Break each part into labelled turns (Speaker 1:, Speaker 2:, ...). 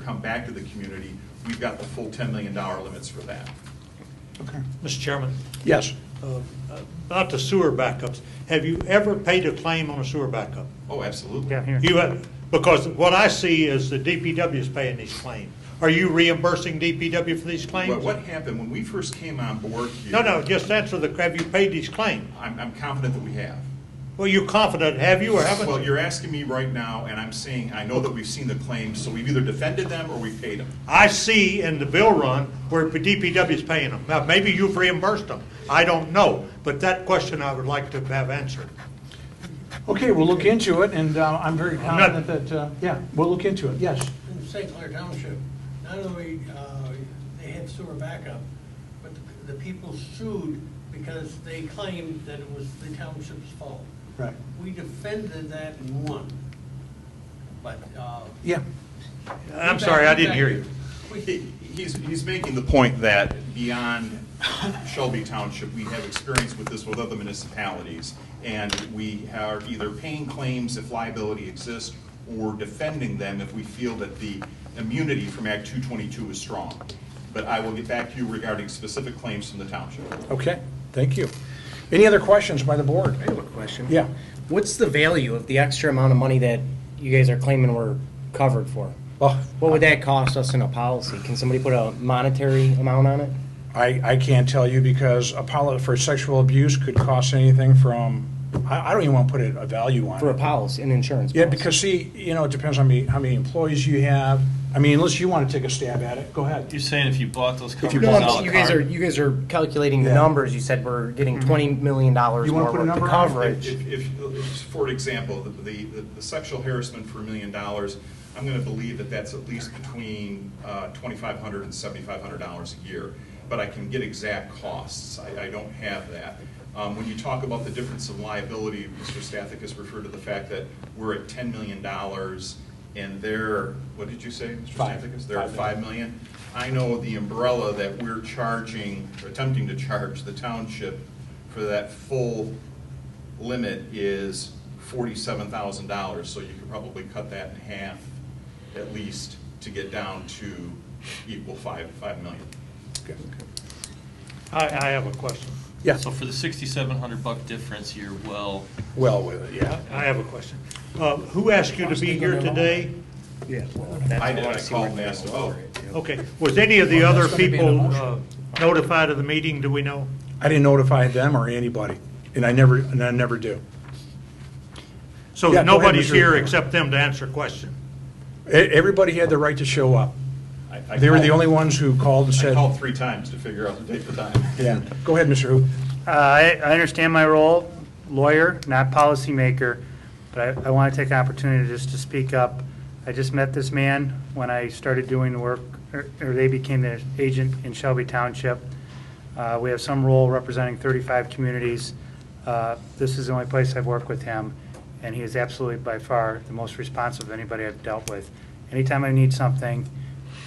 Speaker 1: come back to the community, we've got the full $10 million limits for that.
Speaker 2: Okay.
Speaker 3: Mr. Chairman,
Speaker 2: Yes.
Speaker 3: uh, about the sewer backups, have you ever paid a claim on a sewer backup?
Speaker 1: Oh, absolutely.
Speaker 4: Down here.
Speaker 3: You have, because what I see is the DPW is paying these claims. Are you reimbursing DPW for these
Speaker 1: What
Speaker 3: claims?
Speaker 1: what happened, when we first came on board here...
Speaker 3: No, no, just answer the, have you paid these claims?
Speaker 1: I'm I'm confident that we have.
Speaker 3: Well, you confident, have you or haven't
Speaker 1: Well,
Speaker 3: you?
Speaker 1: you're asking me right now, and I'm saying, I know that we've seen the claims, so we've either defended them or we've paid them.
Speaker 3: I see in the bill run where DPW is paying them. Now, maybe you've reimbursed them. I don't know, but that question I would like to have answered.
Speaker 2: Okay, we'll look into it, and uh, I'm very
Speaker 3: I'm not-
Speaker 2: confident that, uh, yeah, we'll look into it, yes.
Speaker 5: in St. Clair Township, not only, uh, they had sewer backup, but the the people sued because they claimed that it was the township's fault.
Speaker 2: Right.
Speaker 5: We defended that and won, but, uh.
Speaker 2: Yeah.
Speaker 3: I'm sorry, I didn't hear you.
Speaker 5: We-
Speaker 1: He- He's, he's making the point that beyond Shelby Township, we have experience with this with other municipalities, and we are either paying claims if liability exists, or defending them if we feel that the immunity from Act 222 is strong. But I will get back to you regarding specific claims from the township.
Speaker 2: Okay, thank you. Any other questions by the board?
Speaker 4: I have a question.
Speaker 2: Yeah.
Speaker 4: What's the value of the extra amount of money that you guys are claiming we're covered for?
Speaker 2: Well,
Speaker 4: What would that cost us in a policy? Can somebody put a monetary amount on it?
Speaker 2: I, I can't tell you because a poli- for sexual abuse could cost anything from, I, I don't even want to put a a value on it.
Speaker 4: For a policy, an insurance
Speaker 2: Yeah,
Speaker 4: policy?
Speaker 2: because see, you know, it depends on me, how many employees you have. I mean, unless you want to take a stab at it, go ahead.
Speaker 6: You're saying if you bought those
Speaker 2: you
Speaker 6: covers
Speaker 4: No,
Speaker 6: a
Speaker 4: I'm
Speaker 6: la
Speaker 4: just- you guys are,
Speaker 6: carte?
Speaker 4: you guys are calculating the
Speaker 2: Yeah. Mm-hmm.
Speaker 4: numbers. You said we're getting $20 million more
Speaker 2: You wanna put a
Speaker 4: worth
Speaker 2: number
Speaker 4: of
Speaker 2: on it?
Speaker 4: coverage.
Speaker 1: If, if- if- for example, the, the the sexual harassment for a million dollars, I'm going to believe that that's at least between uh, $2,500 and $7,500 a year, but I can get exact costs. I, I don't have that. Um, When you talk about the difference in liability, Mr. Stathic has referred to the fact that we're at $10 million, and they're, what did you say, Mr.
Speaker 2: Five.
Speaker 1: Stathic? They're at
Speaker 2: Five million.
Speaker 1: 5 million. I know the umbrella that we're charging, or attempting to charge the township for that full limit is forty-seven thousand dollars, so you could probably cut that in half at least to get down to equal five, five million.
Speaker 3: I, I have a question.
Speaker 2: Yeah,
Speaker 6: So for the sixty-seven hundred buck difference, you're well,
Speaker 2: well, with it, yeah.
Speaker 3: I have a question. Uh, Who asked you to be here today?
Speaker 4: Yeah.
Speaker 1: I did, I called Oh, and asked about,
Speaker 3: Okay, was any of the other
Speaker 2: That's gonna be an
Speaker 3: people
Speaker 2: emotion.
Speaker 3: uh, notified of the meeting, do we know?
Speaker 2: I didn't notify them or anybody, and I never, and I never do.
Speaker 3: So
Speaker 2: Yeah, go ahead,
Speaker 3: nobody's
Speaker 2: Mr.
Speaker 3: here except them to answer a question.
Speaker 2: E- Everybody had the right to show up.
Speaker 1: I. I
Speaker 2: They were the
Speaker 1: called-
Speaker 2: only ones who called and
Speaker 1: I
Speaker 2: said,
Speaker 1: called three times to figure out the date and time.
Speaker 2: yeah. Go ahead, Mr. Hoop.
Speaker 7: Uh, I, I understand my role, lawyer, not policymaker, but I, I want to take an opportunity just to speak up. I just met this man when I started doing the work, or or they became the agent in Shelby Township. Uh, We have some role representing 35 communities. Uh, This is the only place I've worked with him, and he is absolutely by far the most responsive of anybody I've dealt with. Anytime I need something,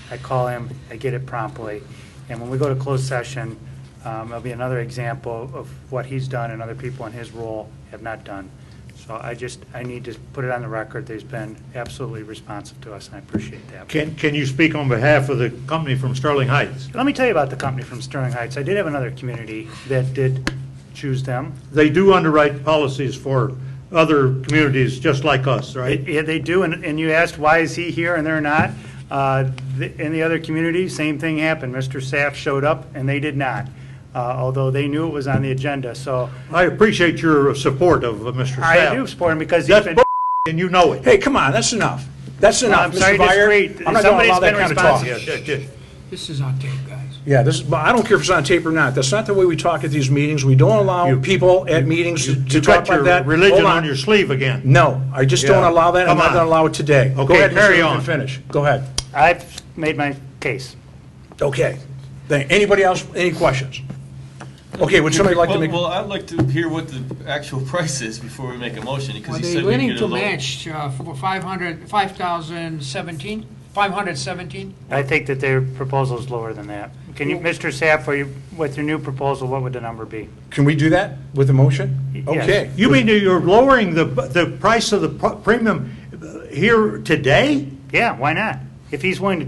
Speaker 7: I call him, I get it promptly. And when we go to closed session, um, it'll be another example of what he's done and other people in his role have not done. So I just, I need to put it on the record, that he's been absolutely responsive to us, and I appreciate that.
Speaker 3: Can, can you speak on behalf of the company from Sterling Heights?
Speaker 7: Let me tell you about the company from Sterling Heights. I did have another community that did choose them.
Speaker 3: They do underwrite policies for other communities just like us, right?
Speaker 7: Yeah, they do, and, and you asked, why is he here and they're not? Uh, th- In the other community, same thing happened. Mr. Saff showed up and they did not, uh, although they knew it was on the agenda, so
Speaker 3: I appreciate your support of uh, Mr.
Speaker 7: I do
Speaker 3: Sapp.
Speaker 7: support him because he's
Speaker 3: That's
Speaker 7: been.
Speaker 3: bull, and you know it.
Speaker 2: Hey, come on, that's enough. That's enough,
Speaker 7: I'm sorry
Speaker 2: Mr.
Speaker 7: to
Speaker 2: Byer.
Speaker 7: disagree.
Speaker 2: I'm not going to allow
Speaker 7: Somebody's
Speaker 2: that
Speaker 7: been
Speaker 2: kind of talk.
Speaker 7: responsive.
Speaker 3: Yeah, yeah, yeah.
Speaker 8: This is on tape, guys.
Speaker 2: Yeah, this, is. but I don't care if it's on tape or not. That's not the way we talk at these meetings. We don't allow
Speaker 3: You-
Speaker 2: people at meetings to
Speaker 3: You
Speaker 2: to
Speaker 3: you
Speaker 2: talk
Speaker 3: got
Speaker 2: about
Speaker 3: your
Speaker 2: that.
Speaker 3: religion
Speaker 2: Hold
Speaker 3: on your sleeve again.
Speaker 2: No, I just don't
Speaker 3: Yeah.
Speaker 2: allow that. I'm
Speaker 3: Come
Speaker 2: not
Speaker 3: on.
Speaker 2: going to allow it today. Go
Speaker 3: Okay,
Speaker 2: ahead, Mr.
Speaker 3: carry
Speaker 2: Hoop,
Speaker 3: on.
Speaker 2: and Finish. Go ahead.
Speaker 7: I've made my case.
Speaker 2: Okay. Thank, anybody else, any questions? Okay, would somebody like to
Speaker 6: Well-
Speaker 2: make,
Speaker 6: Well, I'd like to hear what the actual price is before we make a motion, because
Speaker 8: Are
Speaker 6: he
Speaker 8: they
Speaker 6: said we can
Speaker 8: willing
Speaker 6: get a
Speaker 8: to
Speaker 6: low.
Speaker 8: match uh, for 500, 5,017, 517?
Speaker 7: I think that their proposal is lower than that. Can you, Mr. Sapp, for you, with your new proposal, what would the number be?
Speaker 2: can we do that with a motion?
Speaker 7: Yes.
Speaker 2: Okay.
Speaker 3: You mean that you're lowering the, the price of the pr- premium uh, here today?
Speaker 7: Yeah, why not? If he's willing to